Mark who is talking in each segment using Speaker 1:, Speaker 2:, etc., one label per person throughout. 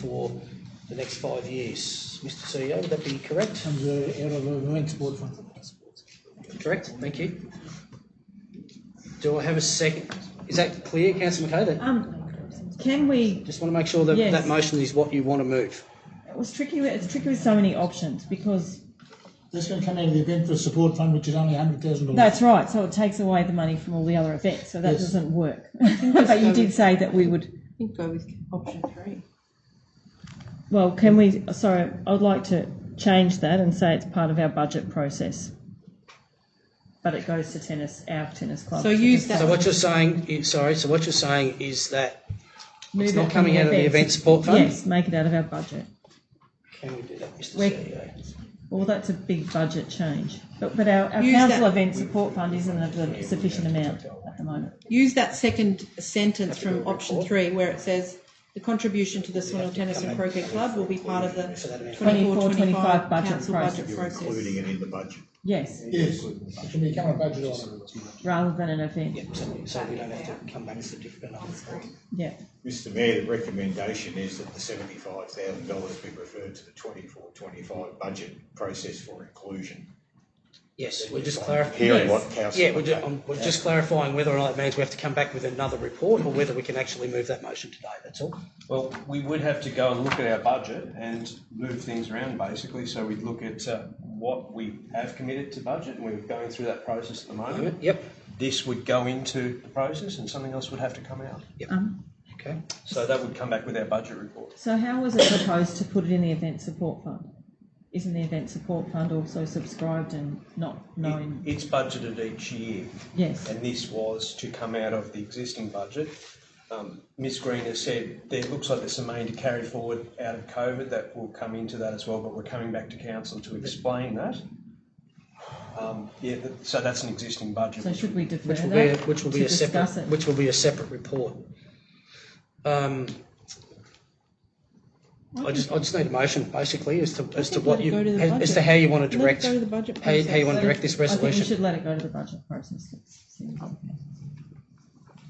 Speaker 1: for the next five years. Mr CEO, would that be correct?
Speaker 2: comes uh, out of the Marine Sport Fund.
Speaker 1: Correct, thank you. Do I have a second? Is that clear, councillor McKay? That-
Speaker 3: Um, can we,
Speaker 1: Just want to make sure that
Speaker 3: Yes.
Speaker 1: that motion is what you want to move.
Speaker 3: it was tricky, with- it's tricky with so many options because,
Speaker 2: That's going to come out of the event for support fund, which is only hundred thousand dollars.
Speaker 3: that's right, so it takes away the money from all the other events, so that
Speaker 2: Yes.
Speaker 3: doesn't work. But you did say that we would,
Speaker 4: I think go with option three.
Speaker 3: well, can we, sorry, I'd like to change that and say it's part of our budget process. But it goes to tennis, our tennis club.
Speaker 4: So use that.
Speaker 1: So what you're saying, you- sorry, so what you're saying is that
Speaker 3: Move
Speaker 1: it's
Speaker 3: it
Speaker 1: not
Speaker 3: from
Speaker 1: coming out of the event
Speaker 3: events.
Speaker 1: support fund?
Speaker 3: Yes, make it out of our budget.
Speaker 1: Can we do that, E Mr
Speaker 3: We-
Speaker 1: CEO?
Speaker 3: Well, that's a big budget change, but, but our, our
Speaker 4: Use
Speaker 3: council
Speaker 4: that-
Speaker 3: event support fund isn't of the sufficient amount at the moment.
Speaker 4: Use that second sentence from option
Speaker 1: report.
Speaker 4: three where it says the contribution to the Swindle Tennis and Croquet Club will be part of the
Speaker 1: So that'll be-
Speaker 4: 24-25
Speaker 3: 25 budget
Speaker 4: council budget
Speaker 5: including
Speaker 4: process.
Speaker 5: it in the budget.
Speaker 3: Yes,
Speaker 2: Yes, it can become a budget item.
Speaker 3: rather than an event,
Speaker 1: Yeah, so- So we don't have to come back to different. Thank
Speaker 3: yeah.
Speaker 5: Mr Mayor, the recommendation is that the seventy-five thousand dollars be referred to the twenty-four, twenty-five budget process for inclusion.
Speaker 1: Yes, we're just clarifying.
Speaker 5: Hearing what
Speaker 3: Yes.
Speaker 5: councillor.
Speaker 1: Yeah, we're ju- um, we're just clarifying whether or not it means we have to come back with another report or whether we can actually move that motion today, that's all.
Speaker 6: Well, we would have to go and look at our budget and move things around basically. So we'd look at uh, what we have committed to budget and we're going through that process at the moment.
Speaker 1: Yep,
Speaker 6: This would go into the process and something else would have to come out.
Speaker 3: Um,
Speaker 1: okay.
Speaker 6: So that would come back with our budget report.
Speaker 3: so how was it proposed to put it in the event support fund? Isn't the event support fund also subscribed and not known?
Speaker 6: It's budgeted each year
Speaker 3: Yes,
Speaker 6: and this was to come out of the existing budget. Um, Ms Green has said there looks like there's some money to carry forward out of COVID that will come into that as well, but we're coming back to council to explain that. Um, yeah, that- so that's an existing budget.
Speaker 3: so should we defer
Speaker 1: Which will be, a-
Speaker 3: that
Speaker 1: which
Speaker 3: to
Speaker 1: will be a
Speaker 3: discuss
Speaker 1: separate,
Speaker 3: it?
Speaker 1: which will be a separate report. Um, I just, I just need a motion basically as to, as to
Speaker 4: think
Speaker 1: what
Speaker 4: let it
Speaker 1: you,
Speaker 4: go to the
Speaker 1: as as to
Speaker 4: budget.
Speaker 1: how you want
Speaker 4: Let
Speaker 1: to
Speaker 4: it
Speaker 1: direct,
Speaker 4: go to the budget
Speaker 1: how you, how you want to
Speaker 4: process.
Speaker 1: direct this
Speaker 3: I think we
Speaker 1: resolution.
Speaker 3: should let it go to the budget process.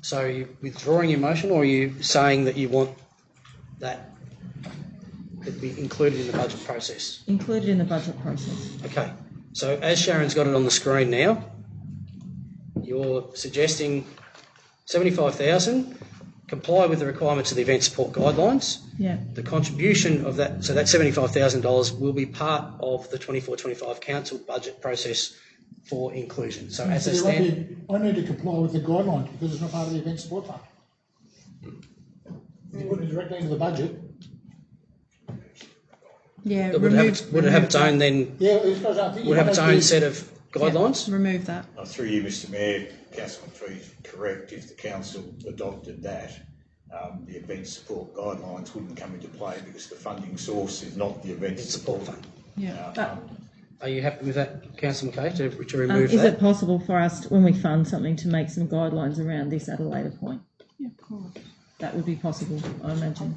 Speaker 1: So are you withdrawing your motion or are you saying that you want that to be included in the budget process?
Speaker 3: Included in the budget process,
Speaker 1: Okay, so as Sharon's got it on the screen now, you're suggesting seventy-five thousand, comply with the requirements of the event support guidelines.
Speaker 3: yeah,
Speaker 1: The contribution of that, so that seventy-five thousand dollars will be part of the 24-25 council budget process for inclusion. So as
Speaker 2: So
Speaker 1: a
Speaker 2: you want
Speaker 1: stand,
Speaker 2: to- I need to comply with the guidelines because it's not part of the event support fund.
Speaker 1: Hmm.
Speaker 2: You put it directly into the budget.
Speaker 4: Yeah,
Speaker 1: it would have,
Speaker 4: remove.
Speaker 1: its- would it have its own then,
Speaker 2: Yeah, as far as I think.
Speaker 1: would have its own set of guidelines?
Speaker 4: Remove that.
Speaker 5: Uh, Through you, Mr Mayor, councillor McPhee is correct. If the council adopted that, um, the event support guidelines wouldn't come into play because the funding source is not the event
Speaker 1: Support
Speaker 5: support.
Speaker 1: fund.
Speaker 4: Yeah.
Speaker 3: but
Speaker 1: Are you happy with that, councillor McKay, to, to
Speaker 3: Um,
Speaker 1: remove
Speaker 3: is it
Speaker 1: that?
Speaker 3: possible for us, to- when we fund something, to make some guidelines around this at a later point?
Speaker 4: Yeah, of course.
Speaker 3: That would be possible, I imagine.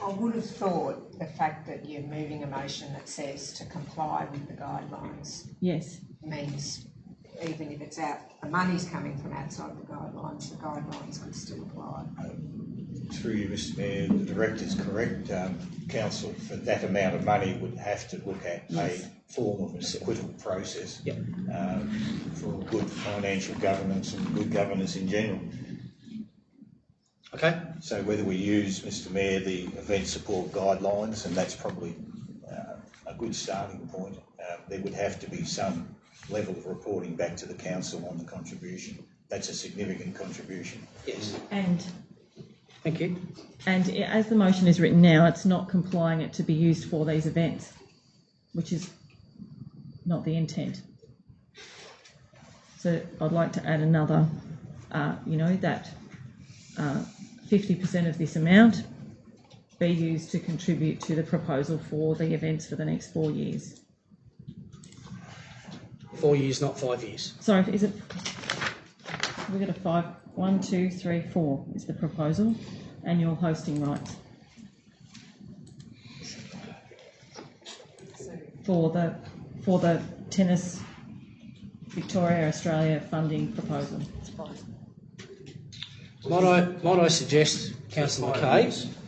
Speaker 7: I would have thought the fact that you're moving a motion that says to comply with the guidelines
Speaker 3: Yes,
Speaker 7: means even if it's out, the money's coming from outside the guidelines, the guidelines could still apply.
Speaker 5: Through you, Mr Mayor, the director's correct. Um, council for that amount of money would have to look at a form of an acquittal process.
Speaker 1: Yep.
Speaker 5: um, for good financial governance and good governance in general.
Speaker 1: Okay,
Speaker 5: So whether we use, Mr Mayor, the event support guidelines, and that's probably uh, a good starting point, uh, there would have to be some level of reporting back to the council on the contribution. That's a significant contribution.
Speaker 1: yes,
Speaker 3: and,
Speaker 1: thank you.
Speaker 3: and i- as the motion is written now, it's not complying it to be used for these events, which is not the intent. So I'd like to add another, uh, you know, that, uh, fifty percent of this amount be used to contribute to the proposal for the events for the next four years.
Speaker 1: Four years, not five years.
Speaker 3: Sorry, is it, we've got a five, one, two, three, four is the proposal, annual hosting rights. For the, for the tennis Victoria Australia funding proposal.
Speaker 1: Might I, might I suggest, Councillor McCabe.